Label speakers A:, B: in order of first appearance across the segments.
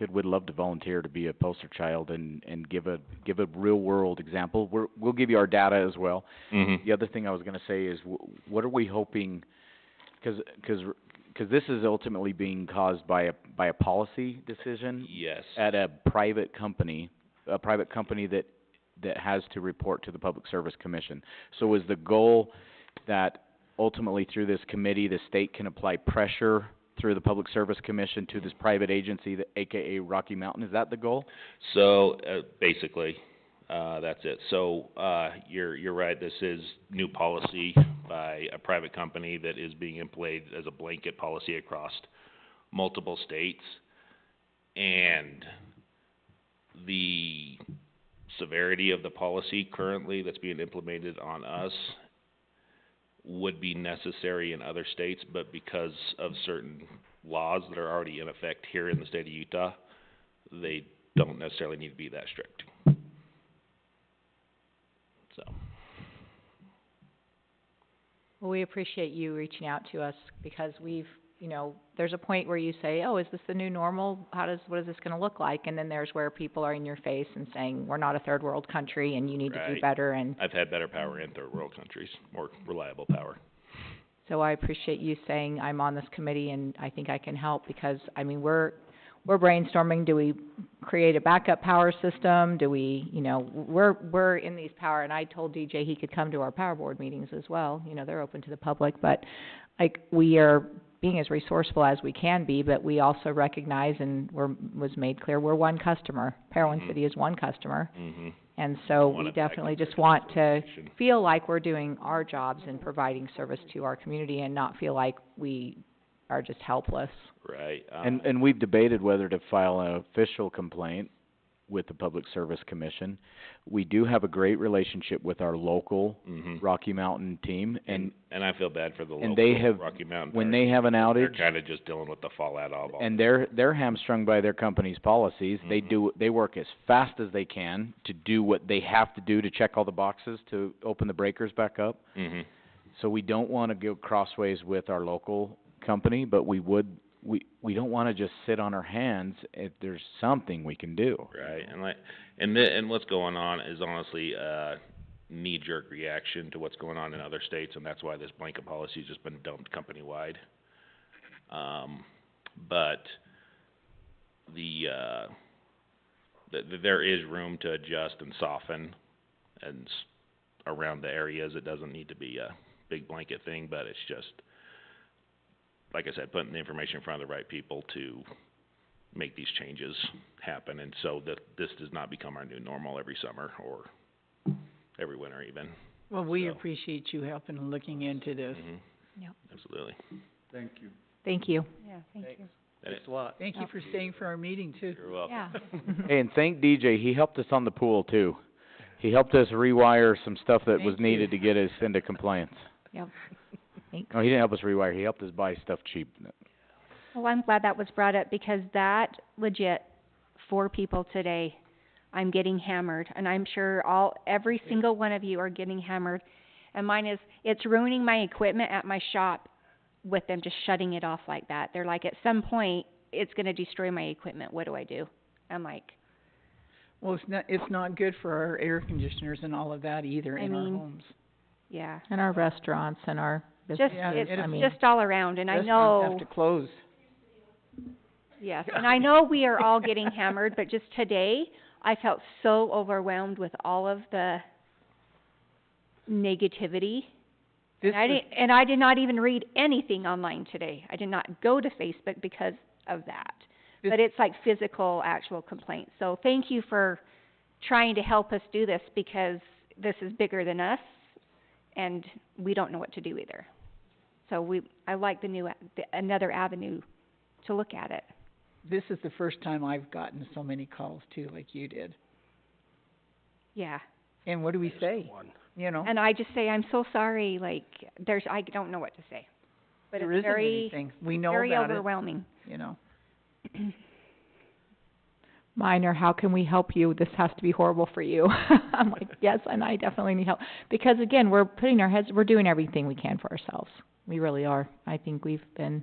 A: that would love to volunteer to be a poster child and, and give a give a real world example. We're, we'll give you our data as well.
B: Mm-hmm.
A: The other thing I was going to say is, w- what are we hoping? Because this is ultimately being caused by a by a policy decision
B: Yes.
A: at a private company, a private company that, that has to report to the Public Service Commission. So is the goal that ultimately through this committee, the state can apply pressure through the Public Service Commission to this private agency, the AKA Rocky Mountain, is that the goal?
B: So, uh, basically, uh, that's it. So, uh, you're, you're right, this is new policy by a private company that is being employed as a blanket policy across multiple states. And the severity of the policy currently that's being implemented on us would be necessary in other states, but because of certain laws that are already in effect here in the state of Utah, they don't necessarily need to be that strict. So,
C: Well, we appreciate you reaching out to us because we've, you know, there's a point where you say, oh, is this the new normal? How does, what is this gonna look like? And then there's where people are in your face and saying, we're not a third world country and you need to
B: Right.
C: do better and
B: I've had better power in third world countries, more reliable power.
C: so I appreciate you saying, I'm on this committee and I think I can help because, I mean, we're, we're brainstorming, do we create a backup power system? Do we, you know, we're, we're in these power, and I told DJ he could come to our power board meetings as well, you know, they're open to the public, but like, we are being as resourceful as we can be, but we also recognize and were, was made clear, we're one customer. Parowan
B: Mhm.
C: City is one customer,
B: Mm-hmm.
C: and so
B: Wanna
C: we
B: back
C: definitely
B: up
C: just
B: your
C: want to
B: Solution.
C: feel like we're doing our jobs and providing service to our community and not feel like we are just helpless.
B: Right, uh,
A: And, and we've debated whether to file an official complaint with the Public Service Commission. We do have a great relationship with our local
B: mhm.
A: Rocky Mountain team, and
B: And, and I feel bad for the
A: and they
B: local
A: have-
B: Rocky Mountain
A: when
B: parents.
A: they have an outage,
B: They're kinda just dealing with the fallout of all.
A: and they're they're hamstrung by their company's policies. They do they work as fast as they can to do what they have to do to check all the boxes to open the breakers back up.
B: Mhm.
A: So we don't want to go crossways with our local company, but we would we we don't want to just sit on our hands if there's something we can do.
B: Right, and like, and the, and what's going on is honestly a knee-jerk reaction to what's going on in other states, and that's why this blanket policy's just been dumped company-wide. Um, but the, uh, th- th- there is room to adjust and soften and s- around the areas. It doesn't need to be a big blanket thing, but it's just, like I said, putting the information in front of the right people to make these changes happen, and so that this does not become our new normal every summer or every winter even.
D: Well, we
B: So-
D: appreciate you helping and looking into this.
B: Mhm.
C: Yep.
B: Absolutely.
C: Thank you.
B: And it-
D: Thank you for staying for our meeting too.
B: You're welcome.
A: Hey, and thank DJ, he helped us on the pool too. He helped us rewire some stuff that was
D: Thank you.
A: needed to get us into compliance.
C: Yep. Thanks.
A: No, he didn't help us rewire, he helped us buy stuff cheap.
E: Well, Oh, I'm glad that was brought up because that legit, four people today, I'm getting hammered and I'm sure all, every single one of you are getting hammered. And mine is, it's ruining my equipment at my shop with them just shutting it off like that. They're like, at some point, it's gonna destroy my equipment, what do I do? I'm like,
D: Well, it's not, it's not good for our air conditioners and all of that either
E: I
D: in our
E: mean,
D: homes.
E: yeah.
C: And our restaurants and our
E: Just,
C: business,
D: Yeah,
E: it's
D: it-
C: I mean,
E: just all around and I know.
D: Restaurants have to close.
E: Yes, and I know we are all getting hammered, but just today, I felt so overwhelmed with all of the negativity.
D: This
E: And I
D: was,
E: didn't, and I did not even read anything online today. I did not go to Facebook because of that.
D: This-
E: But it's like physical, actual complaints. So thank you for trying to help us do this because this is bigger than us and we don't know what to do either. So we, I like the new, a- the, another avenue to look at it.
D: this is the first time I've gotten so many calls too, like you did.
E: Yeah.
D: And what do we say? You know,
E: And I just say, I'm so sorry, like, there's, I don't know what to say. But
D: there
E: it's
D: isn't
E: very,
D: anything. We know
E: very
D: about it,
E: overwhelming.
D: you know.
C: minor, how can we help you? This has to be horrible for you. I'm like, yes, and I definitely need help. Because again, we're putting our heads, we're doing everything we can for ourselves. We really are. I think we've been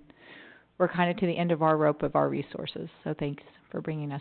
C: we're kind of to the end of our rope of our resources, so thanks for bringing us